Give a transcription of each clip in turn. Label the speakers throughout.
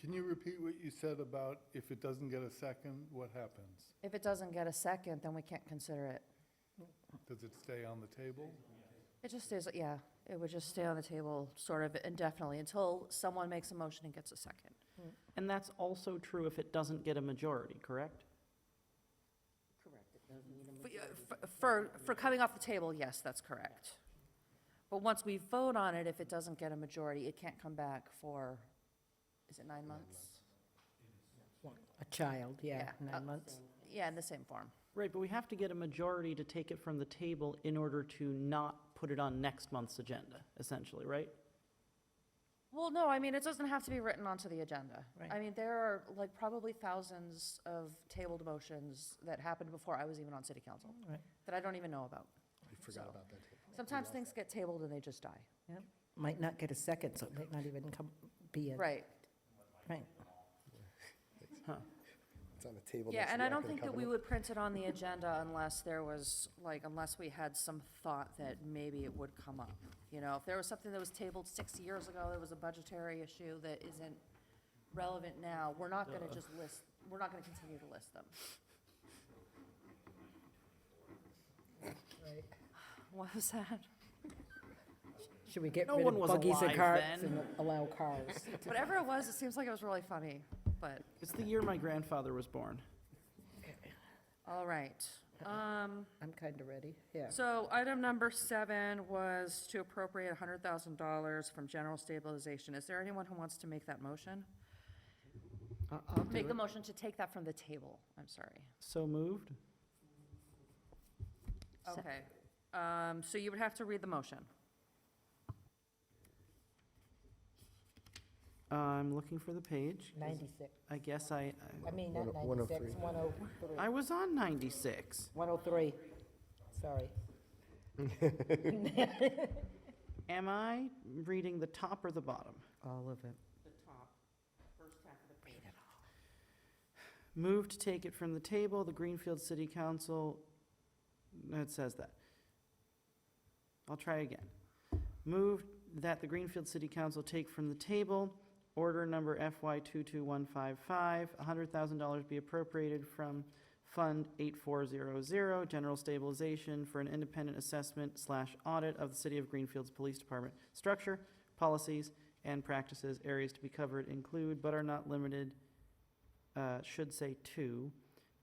Speaker 1: Can you repeat what you said about if it doesn't get a second, what happens?
Speaker 2: If it doesn't get a second, then we can't consider it.
Speaker 1: Does it stay on the table?
Speaker 2: It just stays, yeah, it would just stay on the table sort of indefinitely until someone makes a motion and gets a second.
Speaker 3: And that's also true if it doesn't get a majority, correct?
Speaker 2: F- yeah, f- For, for coming off the table, yes, that's correct. But once we vote on it, if it doesn't get a majority, it can't come back for, is it nine months?
Speaker 4: A child, yeah,
Speaker 2: Yeah, uh,
Speaker 4: nine months.
Speaker 2: Yeah, in the same form.
Speaker 3: Right, but we have to get a majority to take it from the table in order to not put it on next month's agenda, essentially, right?
Speaker 2: Well, no, I mean, it doesn't have to be written onto the agenda. I
Speaker 4: Right.
Speaker 2: mean, there are like probably thousands of tabled motions that happened before I was even on city council
Speaker 4: Right.
Speaker 2: that I don't even know about.
Speaker 5: I
Speaker 2: forgot
Speaker 5: forgot
Speaker 2: So-
Speaker 5: about that table.
Speaker 2: Sometimes things get tabled and they just die.
Speaker 4: Might not get a second, so it might not even come, be in.
Speaker 2: Right.
Speaker 4: Right.
Speaker 5: It's on the table.
Speaker 2: Yeah,
Speaker 5: next to
Speaker 2: and
Speaker 5: the
Speaker 2: I don't
Speaker 5: Act of
Speaker 2: think that we
Speaker 5: Covenant.
Speaker 2: would print it on the agenda unless there was, like, unless we had some thought that maybe it would come up. You know, if there was something that was tabled six years ago, that was a budgetary issue that isn't relevant now, we're not gonna just list, we're not gonna continue to list them. What was that?
Speaker 4: Should we get
Speaker 3: No
Speaker 4: rid
Speaker 3: one
Speaker 4: of
Speaker 3: was
Speaker 4: buggies and
Speaker 3: alive
Speaker 4: carts
Speaker 3: then.
Speaker 4: and allow cars?
Speaker 2: Whatever it was, it seems like it was really funny, but,
Speaker 3: It's the year my grandfather was born.
Speaker 2: all right. Um,
Speaker 4: I'm kind of ready, yeah.
Speaker 2: So item number seven was to appropriate hundred thousand dollars from general stabilization. Is there anyone who wants to make that motion? Make the motion to take that from the table, I'm sorry.
Speaker 3: So moved?
Speaker 4: Se-
Speaker 2: Okay, um, so you would have to read the motion.
Speaker 3: I'm looking for the page.
Speaker 4: 96,
Speaker 3: I guess I, I-
Speaker 4: I mean, not
Speaker 5: One- one oh
Speaker 4: 96,
Speaker 5: three.
Speaker 4: 103,
Speaker 3: I was on 96.
Speaker 4: 103, sorry.
Speaker 3: Am I reading the top or the bottom?
Speaker 4: All of it.
Speaker 3: The top, first half of the page. Move to take it from the table, the Greenfield City Council, no, it says that. I'll try again. Move that the Greenfield City Council take from the table, order number FY 22155, $100,000 be appropriated from Fund 8400, General Stabilization for an independent assessment slash audit of the City of Greenfield's Police Department structure, policies, and practices. Areas to be covered include, but are not limited, uh, should say to,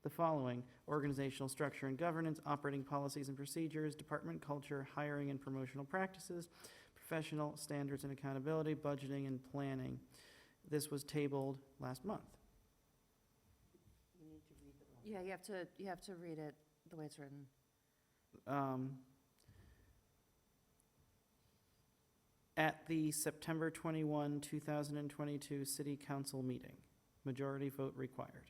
Speaker 3: the following: organizational structure and governance, operating policies and procedures, department culture, hiring and promotional practices, professional standards and accountability, budgeting and planning. This was tabled last month.
Speaker 2: Yeah, you have to, you have to read it the way it's written.
Speaker 3: um, at the September 21, 2022 City Council meeting. Majority vote required.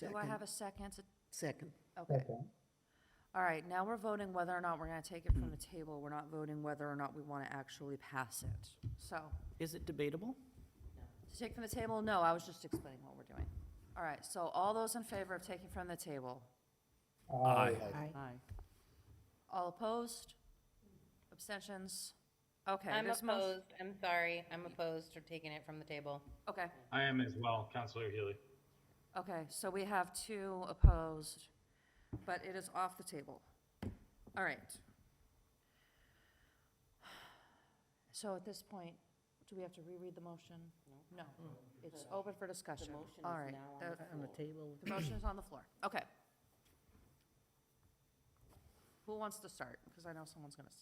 Speaker 2: Do I have a second?
Speaker 4: Second.
Speaker 2: Okay. All right, now we're voting whether or not we're gonna take it from the table. We're not voting whether or not we wanna actually pass it. So,
Speaker 3: Is it debatable?
Speaker 2: To take from the table? No, I was just explaining what we're doing. All right, so all those in favor of taking from the table?
Speaker 4: Aye.
Speaker 3: Aye.
Speaker 2: All opposed? Abstentions? Okay.
Speaker 6: I'm
Speaker 2: this mo-
Speaker 6: opposed, I'm sorry, I'm opposed to taking it from the table.
Speaker 2: Okay,
Speaker 7: I am as well, Counselor Healy.
Speaker 2: okay, so we have two opposed, but it is off the table. All right. So at this point, do we have to reread the motion? No. It's open for discussion. All right. the-
Speaker 4: On the table.
Speaker 2: The motion is on the floor. Okay. Who wants to start? Because I know someone's going to.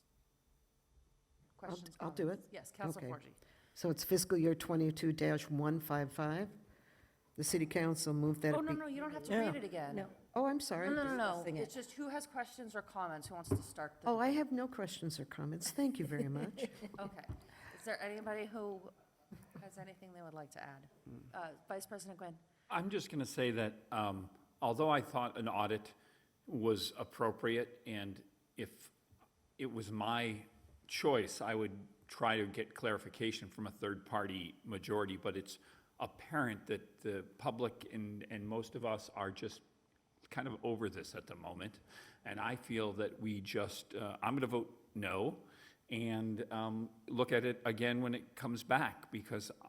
Speaker 2: Questions?
Speaker 8: I'll do
Speaker 2: comments? Yes, Council
Speaker 8: Okay.
Speaker 2: Forgy.
Speaker 8: So it's fiscal year 22-155. The city council moved that.
Speaker 2: Oh,
Speaker 8: it
Speaker 2: no,
Speaker 8: be-
Speaker 2: no, you don't have to
Speaker 4: Yeah.
Speaker 2: read it again.
Speaker 4: No.
Speaker 8: Oh, I'm sorry.
Speaker 2: No, no, no, no.
Speaker 4: discussing it.
Speaker 2: It's just who has questions or comments? Who wants to start? the
Speaker 8: Oh, I have no questions or comments. Thank you very much.
Speaker 2: debate? Okay. Is there anybody who has anything they would like to add? Uh, Vice President Gwynn?
Speaker 9: I'm just going to say that um, although I thought an audit was appropriate, and if it was my choice, I would try to get clarification from a third-party majority, but it's apparent that the public and, and most of us are just kind of over this at the moment. And I feel that we just, uh, I'm going to vote no and um, look at it again when it comes back, because